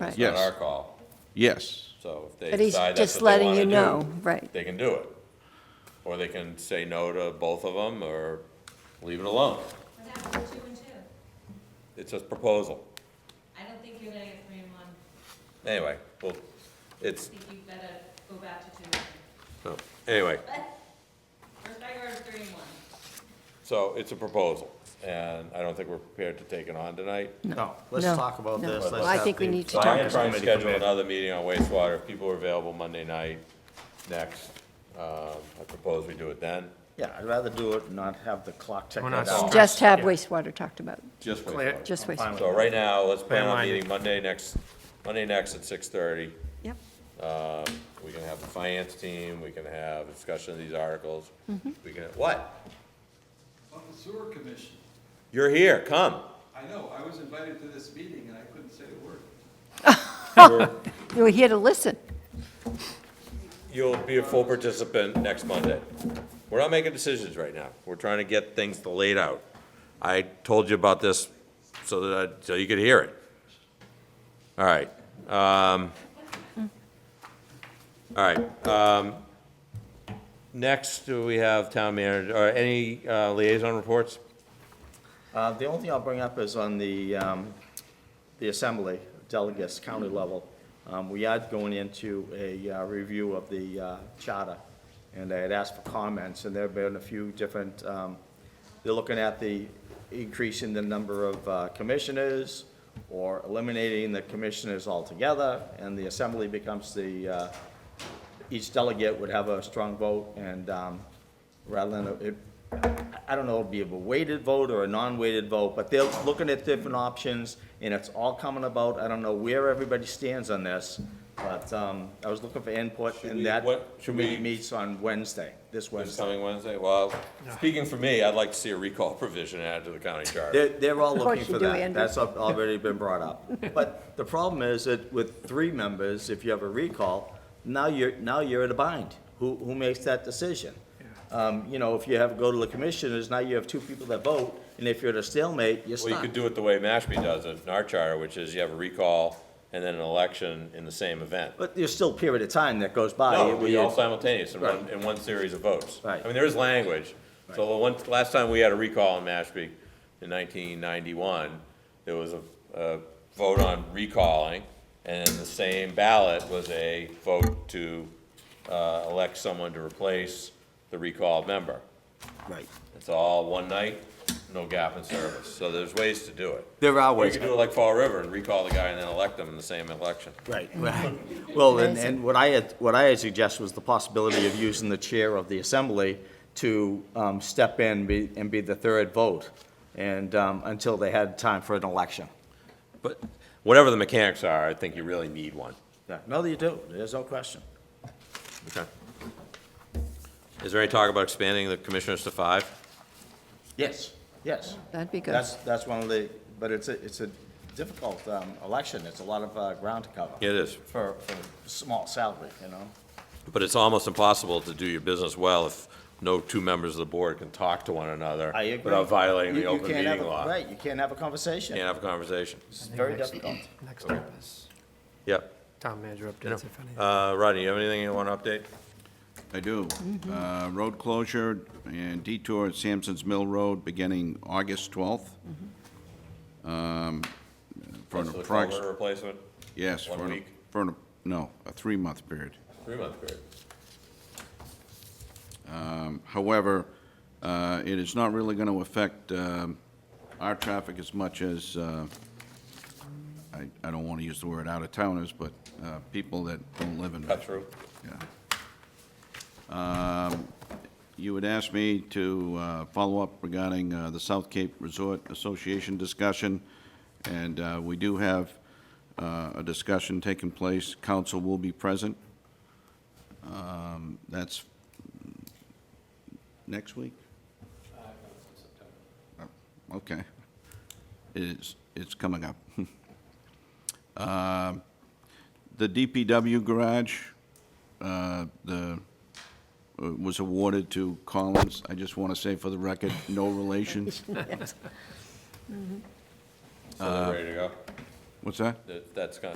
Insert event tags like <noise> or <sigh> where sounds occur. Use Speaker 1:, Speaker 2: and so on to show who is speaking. Speaker 1: Right.
Speaker 2: It's not
Speaker 1: Yes.
Speaker 2: our call,
Speaker 1: Yes,
Speaker 2: so if they
Speaker 3: But he's
Speaker 2: decide that's
Speaker 3: just
Speaker 2: what they
Speaker 3: letting
Speaker 2: want
Speaker 3: you
Speaker 2: to
Speaker 3: know,
Speaker 2: do,
Speaker 3: right?
Speaker 2: they can do it. Or they can say no to both of them, or leave it alone.
Speaker 4: What happened to two and two?
Speaker 2: It's a proposal.
Speaker 4: I don't think you're gonna get three and one.
Speaker 2: Anyway, well,
Speaker 4: I
Speaker 2: it's,
Speaker 4: think you better go back to two and two.
Speaker 2: no, anyway,
Speaker 4: But first I heard three and one.
Speaker 2: so it's a proposal, and I don't think we're prepared to take it on tonight.
Speaker 5: No, let's
Speaker 3: No,
Speaker 5: talk about
Speaker 3: no.
Speaker 5: this.
Speaker 3: Well,
Speaker 5: Let's
Speaker 3: I
Speaker 5: have
Speaker 3: think we
Speaker 5: the
Speaker 3: need to
Speaker 2: So
Speaker 5: finance
Speaker 3: talk
Speaker 2: I'm gonna try and
Speaker 5: committee come
Speaker 2: schedule
Speaker 5: in.
Speaker 2: another meeting on wastewater, if people are available Monday night, next, um, I propose we do it then.
Speaker 5: Yeah, I'd rather do it and not have the clock
Speaker 6: We're
Speaker 5: ticking
Speaker 6: not
Speaker 5: down.
Speaker 6: stressed.
Speaker 3: Just have
Speaker 6: Yeah.
Speaker 3: wastewater talked about,
Speaker 2: Just
Speaker 6: Clear.
Speaker 2: wastewater.
Speaker 3: just
Speaker 5: I'm fine
Speaker 3: wastewater.
Speaker 2: So right now, let's plan on
Speaker 6: Landline.
Speaker 2: meeting Monday next, Monday next at six thirty.
Speaker 3: Yep.
Speaker 2: Um, we can have the finance team, we can have a discussion of these articles, we can, what?
Speaker 7: On the sewer commission,
Speaker 2: You're here, come.
Speaker 7: I know, I was invited to this meeting and I couldn't say a word.
Speaker 3: We're here to listen.
Speaker 2: You'll be a full participant next Monday. We're not making decisions right now. We're trying to get things laid out. I told you about this so that, I- so you could hear it. All right. um, All right. um, Next, we have town manager, or any uh, liaison reports?
Speaker 5: Uh, The only thing I'll bring up is on the, um, the assembly, delegates, county level. Um, We are going into a uh, review of the uh, charter, and I had asked for comments, and there have been a few different, um, they're looking at the increase in the number of uh, commissioners, or eliminating the commissioners altogether, and the assembly becomes the, uh, each delegate would have a strong vote, and um, rather than, a- it, I don't know, it'd be a weighted vote or a non-weighted vote, but they're looking at different options, and it's all coming about, I don't know where everybody stands on this, but um, I was looking for input,
Speaker 2: we-
Speaker 5: and that
Speaker 2: what- should we-
Speaker 5: committee meets on Wednesday, this
Speaker 2: This
Speaker 5: Wednesday.
Speaker 2: coming Wednesday? Well, speaking for me, I'd like to see a recall <laughs> provision added to the county charter.
Speaker 5: They're, they're all
Speaker 3: Of course
Speaker 5: looking for
Speaker 3: you do,
Speaker 5: that.
Speaker 3: Andrew.
Speaker 5: That's al- already been
Speaker 3: <laughs>
Speaker 5: brought up. But the problem is that with three members, if you have a recall, now you're, now you're at a bind. Who, who makes that decision? Um, you know, if you have, go to the commissioners, now you have two people that vote, and if you're at a stalemate, you're
Speaker 2: Well, you
Speaker 5: stuck.
Speaker 2: could do it the way Mashpee does it in our charter, which is you have a recall and then an election in the same event.
Speaker 5: But there's still a period of time that goes by.
Speaker 2: No,
Speaker 5: where
Speaker 2: we
Speaker 5: you-
Speaker 2: all simultaneous in one,
Speaker 5: Right.
Speaker 2: in one series of votes.
Speaker 5: Right.
Speaker 2: I mean, there is language. So the one, last time we had a recall in Mashpee in nineteen ninety-one, there was a, a vote on recalling, and in the same ballot was a vote to, uh, elect someone to replace the recalled member.
Speaker 5: Right.
Speaker 2: It's all one night, no gap in service. So there's ways to do it.
Speaker 5: There are
Speaker 2: Or you
Speaker 5: ways.
Speaker 2: could do it like Fall River and recall the guy and then elect them in the same election.
Speaker 5: Right, right. <laughs> Well, and,
Speaker 3: Amazing.
Speaker 5: and what I had, what I had suggested was the possibility of using the chair of the assembly to um, step in be- and be the third vote, and, um, until they had time for an election.
Speaker 2: But whatever the mechanics are, I think you really need one.
Speaker 5: Yeah, No, you do, there's no question.
Speaker 2: Okay. Is there any talk about expanding the commissioners to five?
Speaker 5: Yes, yes.
Speaker 3: That'd be good.
Speaker 5: That's, that's one of the, but it's a, it's a difficult um, election, it's a lot of uh, ground to cover.
Speaker 2: It is,
Speaker 5: For, for small salary, you know?
Speaker 2: but it's almost impossible to do your business well if no two members of the board can talk to one another
Speaker 5: I agree.
Speaker 2: without violating
Speaker 5: You-
Speaker 2: the
Speaker 5: you
Speaker 2: open
Speaker 5: can't have
Speaker 2: meeting
Speaker 5: a-
Speaker 2: law.
Speaker 5: Right, you can't have a conversation.
Speaker 2: Can't have a conversation.
Speaker 5: It's very difficult.
Speaker 6: Next up is
Speaker 2: Yep.
Speaker 6: town manager updates, if any.
Speaker 2: Uh, Rodney, you have anything you want to update?
Speaker 1: I do. Uh, Road closure and detour at Sampson's Mill Road beginning August 12th. Um, For an
Speaker 2: For the
Speaker 1: approx-
Speaker 2: culvert Replacement,
Speaker 1: Yes.
Speaker 2: one
Speaker 1: for an-
Speaker 2: week?
Speaker 1: For, an- no, a three-month period.
Speaker 2: three-month period.
Speaker 1: However, uh, it is not really going to affect um, our traffic as much as, uh, I I don't want to use the word out-of-towners, but uh, people that don't live in.
Speaker 2: Cut through.
Speaker 1: Yeah. Um, You had asked me to uh, follow up regarding uh, the South Cape Resort Association discussion, and uh, we do have uh, a discussion taking place. Council will be present. Um, That's next week? Oh, Okay. It's, it's coming up. <laughs> Um, The DPW garage, uh, the, uh, was awarded to Collins. I just want to say for the record, no relation.
Speaker 2: So they're ready to go?
Speaker 1: What's that?
Speaker 2: That- That's gone,